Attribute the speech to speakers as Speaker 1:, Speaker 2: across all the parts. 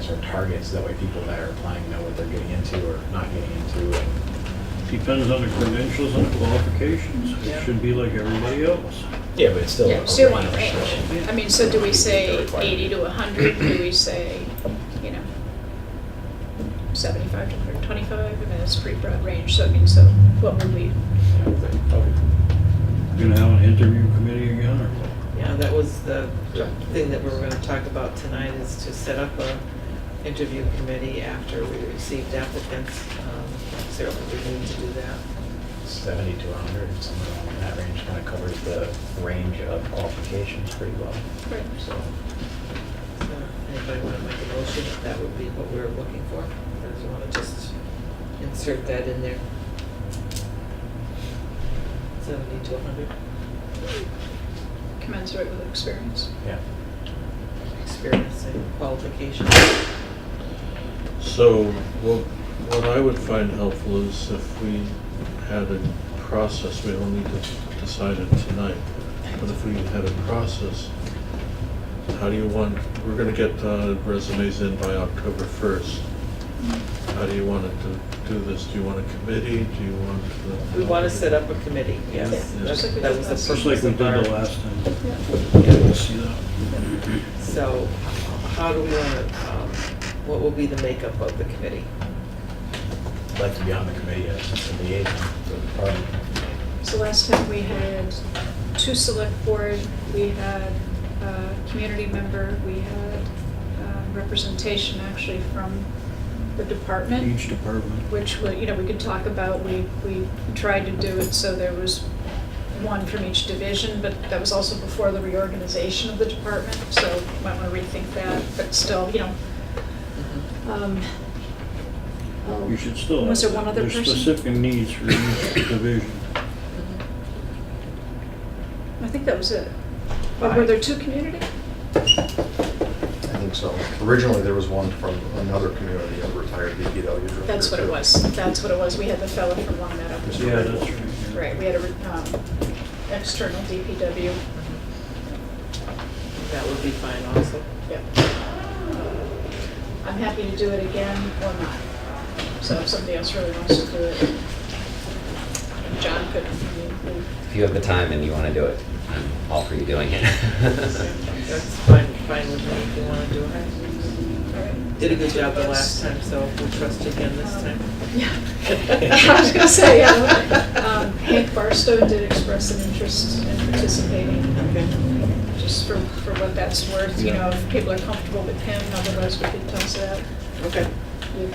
Speaker 1: sets our targets, that way people that are applying know what they're getting into or not getting into. and-
Speaker 2: Depends on the credentials and qualifications. It should be like everybody else.
Speaker 1: Yeah, but it's still.
Speaker 3: Yeah,
Speaker 1: a
Speaker 3: still want a
Speaker 1: range, so-
Speaker 3: range. I mean, so do we say eighty to hundred, do we say, you know, seventy-five to hundred twenty-five, I mean, that's a pretty broad range, so I mean, so what would we,
Speaker 2: Gonna have an interview committee again or what?
Speaker 4: Yeah, that was the thing that we were gonna talk about tonight, is to set up a interview committee after we received applicants. Um, Sarah, we need to do that.
Speaker 1: Seventy to hundred, somewhere along that range, kind of covers the range of qualifications pretty well,
Speaker 3: right,
Speaker 1: so.
Speaker 4: So, Anybody wanna make a motion, if that would be what we were looking for? Or do you wanna just insert that in there? Seventy to hundred,
Speaker 3: commensurate with experience?
Speaker 1: Yeah.
Speaker 4: experience and qualifications.
Speaker 5: So what, what I would find helpful is if we had a process, we don't need to decide it tonight, but if we had a process, how do you want, we're gonna get uh, resumes in by October first. How do you want to do this? Do you want a committee? Do you want? the-
Speaker 4: We wanna set up a committee, yes.
Speaker 5: Yeah,
Speaker 4: That's-
Speaker 5: just like
Speaker 3: we
Speaker 4: That
Speaker 3: did
Speaker 4: was
Speaker 3: last
Speaker 4: the
Speaker 2: Just like
Speaker 4: purpose
Speaker 2: we
Speaker 4: of
Speaker 2: did
Speaker 4: our.
Speaker 2: the last time.
Speaker 3: Yeah.
Speaker 2: We'll see that.
Speaker 4: So how do we want to, what will be the makeup of the committee?
Speaker 1: I'd like to be on the committee as a liaison for the party.
Speaker 3: So last time we had two select board, we had a community member, we had uh, representation actually from the department.
Speaker 2: Each department.
Speaker 3: which, we- you know, we could talk about, we, we tried to do it so there was one from each division, but that was also before the reorganization of the department, so you might want to rethink that, but still, you know. um, oh,
Speaker 2: You should still have.
Speaker 3: Was there one other
Speaker 2: there's
Speaker 3: person?
Speaker 2: specific needs for each division.
Speaker 3: I think that was it. But Were there two community?
Speaker 6: I think so. Originally, there was one from another community, a retired DPW. director,
Speaker 3: That's what it
Speaker 6: too.
Speaker 3: was, that's what it was, we had the fellow from Long Meadow.
Speaker 2: Yeah, that's right. yeah.
Speaker 3: Right, we had a, um, external DPW,
Speaker 4: That would be fine also.
Speaker 3: Yep. I'm happy to do it again or not. So if somebody else really wants to do it, John could, I mean,
Speaker 7: If you have the time and you want to do it, I'm all for you doing it.
Speaker 4: That's fine, fine with me if you want to do it.
Speaker 3: we- all right.
Speaker 4: Did a good job the last time, so we'll trust you again this time.
Speaker 3: Yeah. I was gonna say, yeah. Um, Hank Barstow did express an interest in participating,
Speaker 4: Okay.
Speaker 3: just for, for what that's worth, you know, if people are comfortable with him, otherwise we could toss it out.
Speaker 4: Okay.
Speaker 3: You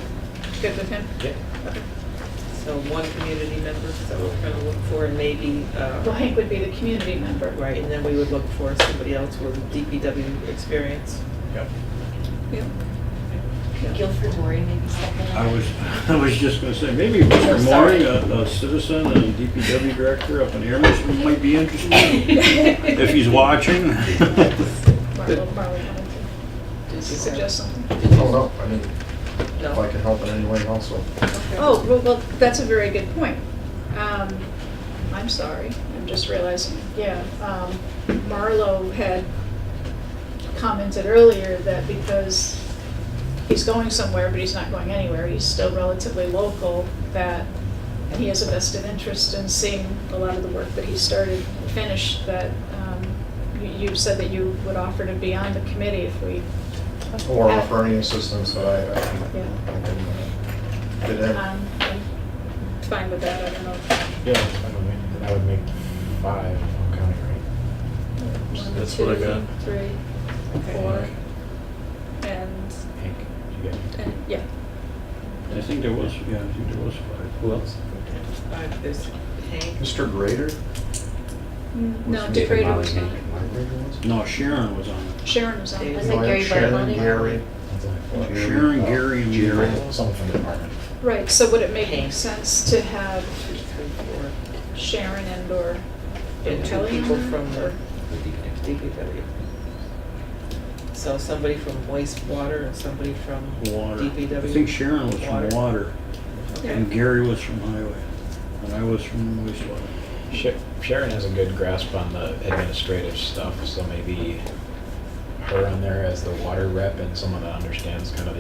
Speaker 3: Good with him?
Speaker 1: Yeah.
Speaker 3: Okay.
Speaker 4: So one community member, so we're going to look for, and maybe, uh,
Speaker 3: Well, Hank would be the community member.
Speaker 4: right, and then we would look for somebody else with DPW experience.
Speaker 1: Yep.
Speaker 3: Yeah.
Speaker 8: Guilford Dory maybe second.
Speaker 2: I was, I was just gonna say, maybe
Speaker 3: Oh,
Speaker 2: Mr. Maury, a a citizen and DPW director up in Amherst might be interested, if he's watching.
Speaker 3: Marlo, Marlo wanted to, did you suggest something?
Speaker 6: Oh, no, I mean, if I
Speaker 4: No?
Speaker 6: can help in any way also.
Speaker 4: Okay.
Speaker 3: Oh, well, well, that's a very good point. Um, I'm sorry, I'm just realizing, yeah, um, Marlo had commented earlier that because he's going somewhere, but he's not going anywhere, he's still relatively local, that, and he has a vested interest in seeing a lot of the work that he started and finished, that, um, you, you said that you would offer to be on the committee if we,
Speaker 6: Or offer any assistance that I, I can-
Speaker 3: Yeah.
Speaker 6: I can uh, get in.
Speaker 3: um, I'm fine with that, I don't know.
Speaker 1: Yeah, that's fine with me. And I would make five, if I'm counting right.
Speaker 3: One,
Speaker 5: That's what I
Speaker 3: two,
Speaker 5: got.
Speaker 3: Three, four, and,
Speaker 1: Hank, did you get?
Speaker 3: and, yeah.
Speaker 2: I think there was, yeah, I think there was five.
Speaker 1: Who else?
Speaker 4: Uh, There's Hank,
Speaker 6: Mr. Grader?
Speaker 3: Mm, No,
Speaker 7: Ethan
Speaker 3: DeGrader
Speaker 7: Molly,
Speaker 3: was
Speaker 7: Hank,
Speaker 3: not.
Speaker 7: and Margaret.
Speaker 2: No, Sharon was on it.
Speaker 3: Sharon was on
Speaker 4: Dave.
Speaker 8: Was
Speaker 3: it.
Speaker 8: it
Speaker 6: Ryan,
Speaker 8: Gary
Speaker 6: Shannon,
Speaker 8: Bartoloni?
Speaker 6: Gary.
Speaker 1: That's only four.
Speaker 6: Jerry,
Speaker 2: Sharon,
Speaker 6: uh,
Speaker 2: Gary, and
Speaker 6: Jerry,
Speaker 2: Mary.
Speaker 1: Someone from the department.
Speaker 3: Right, so would it make
Speaker 4: Hank.
Speaker 3: sense to have
Speaker 4: two, three, four,
Speaker 3: Sharon and or
Speaker 4: and two
Speaker 3: Kelly
Speaker 4: people
Speaker 3: on it,
Speaker 4: from the
Speaker 3: or-
Speaker 7: Would be good.
Speaker 4: DPW. So somebody from wastewater and somebody from
Speaker 2: Water.
Speaker 4: DPW.
Speaker 2: I think Sharon was from
Speaker 4: Water.
Speaker 2: water, and Gary was from highway, and I was from wastewater.
Speaker 1: Sha- Sharon has a good grasp on the administrative stuff, so maybe her on there as the water rep and someone that understands kind of the